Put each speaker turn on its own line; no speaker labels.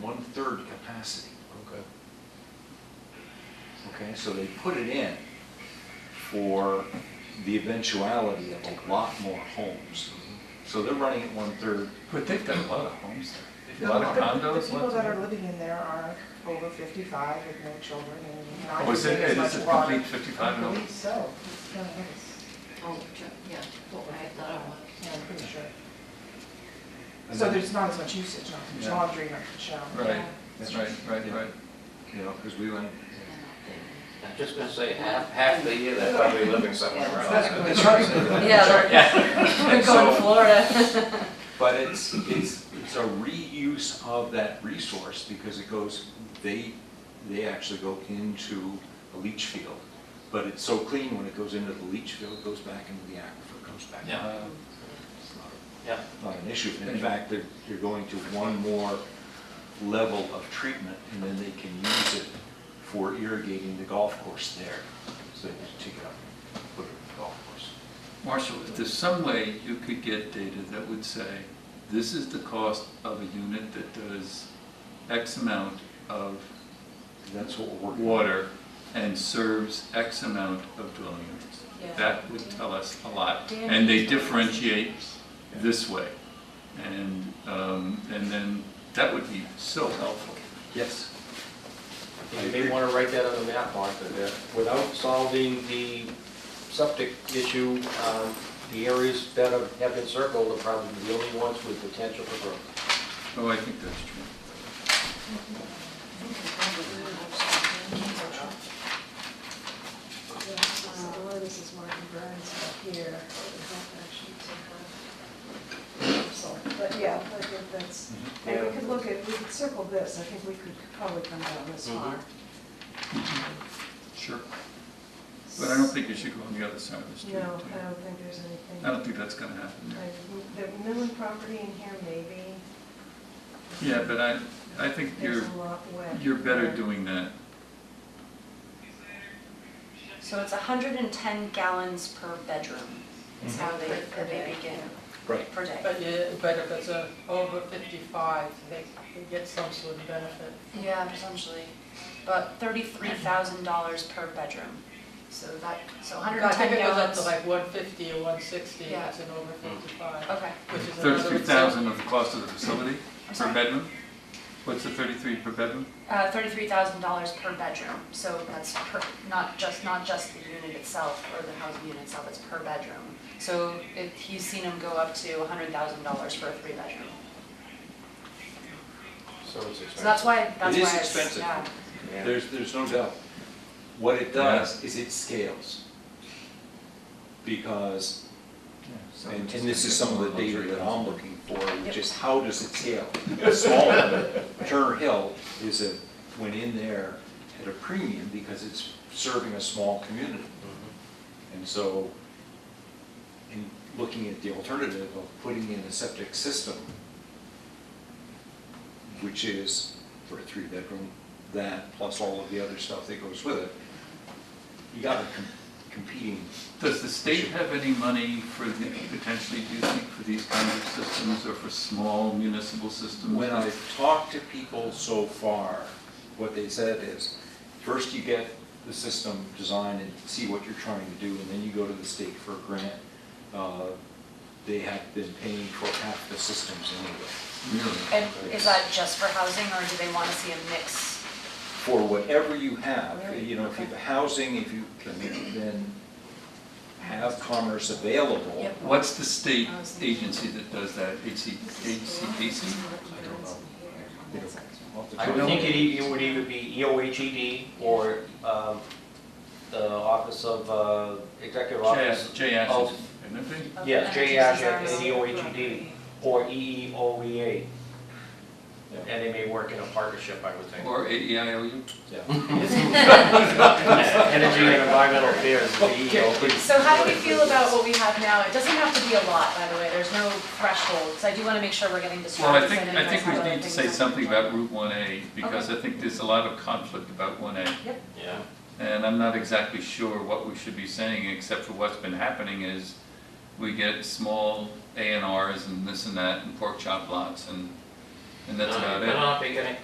one-third capacity.
Okay.
Okay, so they put it in for the eventuality of a lot more homes. So they're running it one-third.
But they've got a lot of homes there, a lot of
The- the-
condos.
The people
lots
that
of-
are living in there are over fifty-five with no children and not.
Was it,
using as
Oh, is
much
it
water.
complete fifty-five
I
now?
believe so. It's kind of nice.
Oh, true, yeah, I thought it was.
Yeah, I'm pretty sure.
And
So
then-
there's not as much usage, not as much
Yeah.
laundry, not as much shower.
Right,
That's
right, right,
Yeah.
right.
You know, because we went,
I'm just gonna say, half, half the year, they're probably living somewhere around.
That's right.
Yeah, going to Florida.
but it's, it's, it's a reuse of that resource because it goes, they, they actually go into a leach field. But it's so clean when it goes into the leach field, it goes back into the aquifer, comes back.
Yeah.
Uh,
It's not a
Yeah,
not uh, an issue. In fact, they're, they're going to one more level of treatment, and then they can use it for irrigating the golf course there. So they just take it up, and put it in the golf course.
Marshall, if there's some way you could get data that would say, this is the cost of a unit that does X amount of
That's what we're working on.
water and serves X amount of dwelling units. That would tell us a lot. And they differentiate this way. And, um, and then that would be so helpful.
Yes.
you may wanna write that on the map, Martha, that without solving the septic issue, um, the areas that have have been circled are probably the only ones with potential for growth.
Oh, I think that's true.
Uh, This is Martin Burns up here, we have actually taken off. So, But yeah, I think that's, and we could look at, we could circle this, I think we could probably come down this
Mm-hmm.
far.
Sure. But I don't think you should go on the other side of the street.
No, I
do you?
don't think there's
I
anything.
don't think that's gonna happen.
Like, The Millen property in here, maybe,
Yeah, but I, I think
there's
you're,
a lot wet.
you're better doing that.
So it's hundred and ten gallons per bedroom is how they, how they begin,
Right.
per day.
But yeah, but if it's a over fifty-five, they they get some sort of benefit.
Yeah, potentially, but thirty-three thousand dollars per bedroom, so that, so hundred
I
and ten
think it goes up
gallons.
to like one fifty or one sixty,
Yeah.
it's an over fifty-five,
Okay,
which is another.
Thirty-three thousand of the cost of the facility
I'm
per
sorry.
bedroom? What's the thirty-three per bedroom?
uh, thirty-three thousand dollars per bedroom, so that's per, not just, not just the unit itself or the housing unit itself, it's per bedroom. So if, he's seen them go up to hundred thousand dollars for a three-bedroom,
So it's
so
expensive.
that's why, that's why
is
it's-
expensive.
yeah.
Yeah.
There's, there's no doubt. What it does is it scales. Because, and and this is some of the data that I'm looking for, which is how does it scale? The Small one, Turner Hill is a, went in there at a premium because it's serving a small community. And so, in looking at the alternative of putting in a septic system, which is for a three-bedroom, that plus all of the other stuff that goes with it, you got a com- competing,
Does the state have any money for the, potentially, do you think, for these kinds of systems or for small municipal systems?
when I've talked to people so far, what they said is, first you get the system designed and see what you're trying to do, and then you go to the state for a grant. Uh, They have been paying for half the systems anyway.
Really?
And is that just for housing, or do they want to see a mix?
for whatever you have,
Right,
you know, if you have
okay.
housing, if you can then have commerce available.
Yep.
What's the state agency that does that, HC, HCPC?
I don't know. You know, off the
I
top
would
of my
think it
head.
e- it would either be EOHED or um, the Office of, uh, Executive Office.
J- J. Ash's,
of-
isn't it?
Yes, J.
Energy
Ashek and
Services.
EOHED, or E EEOEA.
Yeah.
And they may work in a partnership, I would think.
Or E AEIOU?
Yeah.
Energy and Environmental Affairs is the E EEO.
So how do we feel about what we have now? It doesn't have to be a lot, by the way, there's no threshold, so I do want to make sure we're getting
Well, I
distracted.
think,
so
I
you
think
guys
we
have other
need to
things
say
on the
something
agenda.
about Route 1A, because I think there's a lot of conflict about 1A.
Yeah.
And I'm not exactly sure what we should be saying, except for what's been happening is we get small A and Rs and this and that and pork chop lots and, and that's
No,
about it.
They're not big any-